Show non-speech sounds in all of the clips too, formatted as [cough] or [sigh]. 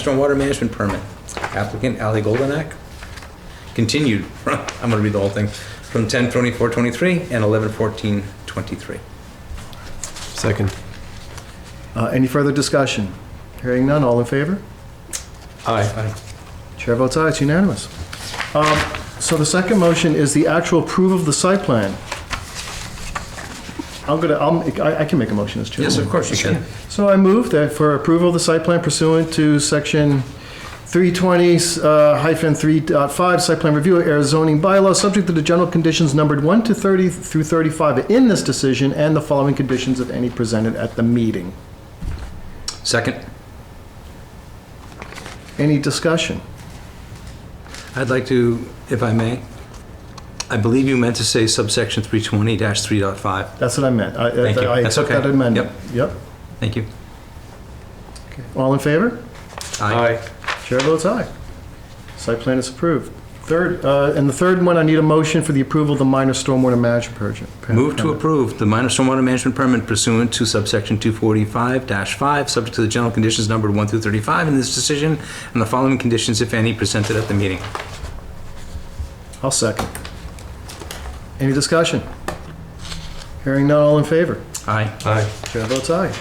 stormwater management permit. Applicant Ali Goldenak. Continued, [laughs] I'm gonna read the whole thing, from 10 24 23 and 11 14 23. Second. Uh, Any further discussion? Hearing none, all in favor? Aye. Chair votes aye, it's unanimous. Um, So the second motion is the actual approval of the site plan. I'm gonna, I'll, I I can make a motion as chair. Yes, of course you can. So I move that for approval of the site plan pursuant to section 320 uh, hyphen 3.5, site plan review, air zoning bylaw, subject to the general conditions numbered 1 to 30 through 35 in this decision and the following conditions of any presented at the meeting. Second, Any discussion? I'd like to, if I may, I believe you meant to say subsection 320-3.5. That's what I meant. I- Thank you. I That's accept okay. that amendment. Yep. Thank you. All in favor? Aye. Chair votes aye. Site plan is approved. Third, uh, and the third one, I need a motion for the approval of the minor stormwater management project. Move to approve the minor stormwater management permit pursuant to subsection 245-5, subject to the general conditions numbered 1 through 35 in this decision, and the following conditions, if any, presented at the meeting. I'll second. Any discussion? Hearing none, all in favor? Aye. Aye. Chair votes aye.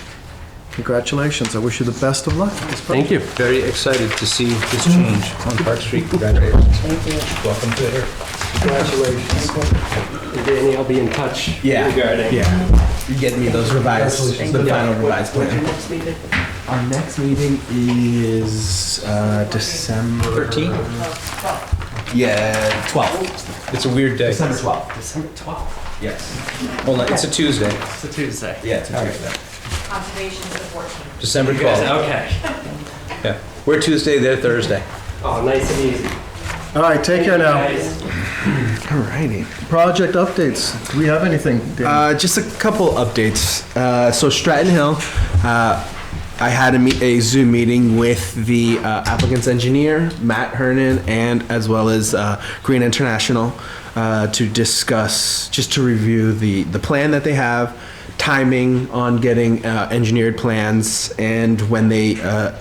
Congratulations, I wish you the best of luck. with this project. Thank you. Very excited to see this Mm. change on Park Street. Congratulations. Welcome to her. Danny, I'll be in touch. Regarding. yeah. You get me those revised, the final revised plan. next meeting? Our next meeting is uh, December 13? Yeah, 12th. It's a weird day. December 12th. December 12th. Yes. Well, it's a Tuesday, It's a Tuesday. Yeah, it's a Tuesday. Conservation is the 14th. December You guys, 12th. okay. Yeah. We're Tuesday, they're Thursday. Oh, nice and easy. All right, take care now. Guys, All righty. Project updates, do we have anything, Dan? Uh, just a couple updates. Uh, so Stratton Hill, uh, I had a, meet, a Zoom meeting with the uh, applicant's engineer, Matt Hernan, and as well as uh, Green International uh, to discuss, just to review the, the plan that they have, timing on getting uh, engineered plans, and when they, uh,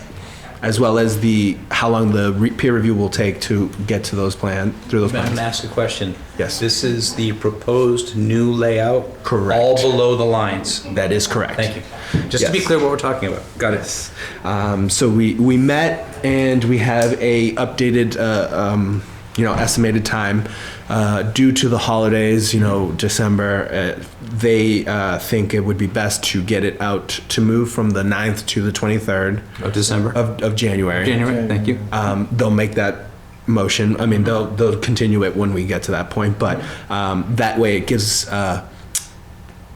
as well as the how long the re- peer review will take to get to those plan through those Madam, plans. ask a question. Yes. This is the proposed new layout? Correct. All below the lines? That is correct. Thank you. Just to be Yes. clear what we're talking about. Got it. Um, so we, we met and we have a updated, uh, um, you know, estimated time. Uh, due to the holidays, you know, December, uh, they uh, think it would be best to get it out to move from the 9th to the 23rd Of Oh, December? of, of Oh, January. January, thank you. Um, they'll make that motion. I mean, they'll, they'll continue it when we get to that point, but um, that way it gives, uh,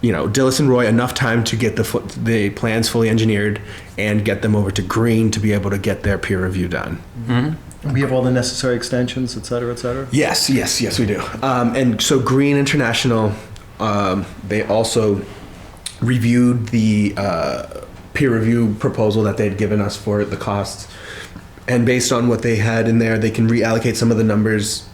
you know, Dillis and Roy enough time to get the, fu- the plans fully engineered and get them over to Green to be able to get their peer review done. We have all the necessary extensions, et cetera, et cetera? Yes, yes, yes, we do. Um, and so Green International, um, they also reviewed the uh, peer review proposal that they had given us for the costs. And based on what they had in there, they can reallocate some of the numbers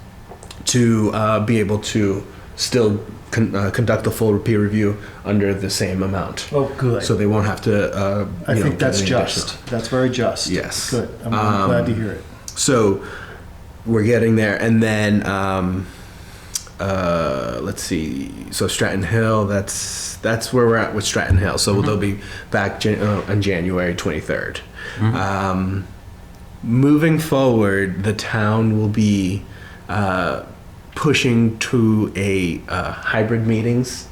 to uh, be able to still con- uh, conduct the full peer review under the same amount. Oh, good. So they won't have to. Uh, I you know, think get that's any additional- just, that's very just. Yes. Um, Good, I'm I'm glad to hear it. so we're getting there and then um uh let's see so stratton hill that's that's where we're at with stratton hill so they'll be back Jan- uh, on january 23rd um moving forward the town will be uh pushing to a uh, hybrid meetings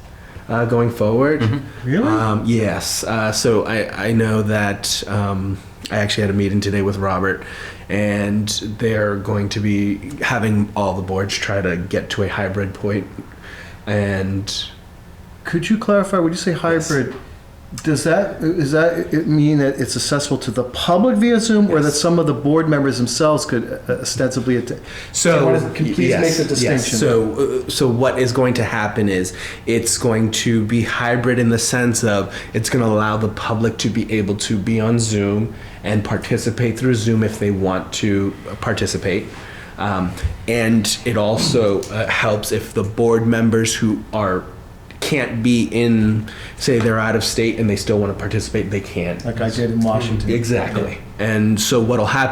uh, going forward Really? um, yes. Uh, so I, I know that um, I actually had a meeting today with Robert, and they're going to be having all the boards try to get to a hybrid point. And Could you clarify, when you say hybrid, does that, is that, it mean that it's accessible to the public via Zoom? Or that some of the board members themselves could uh, ostensibly attend? so, What is- can you please yes, make the yes. distinction? So, uh, so what is going to happen is it's going to be hybrid in the sense of it's going to allow the public to be able to be on Zoom and participate through Zoom if they want to uh, participate. Um, and it also uh, helps if the board members who are can't be in, say they're out of state and they still want to participate, they can. Like I did in Washington? Exactly. And so what'll happen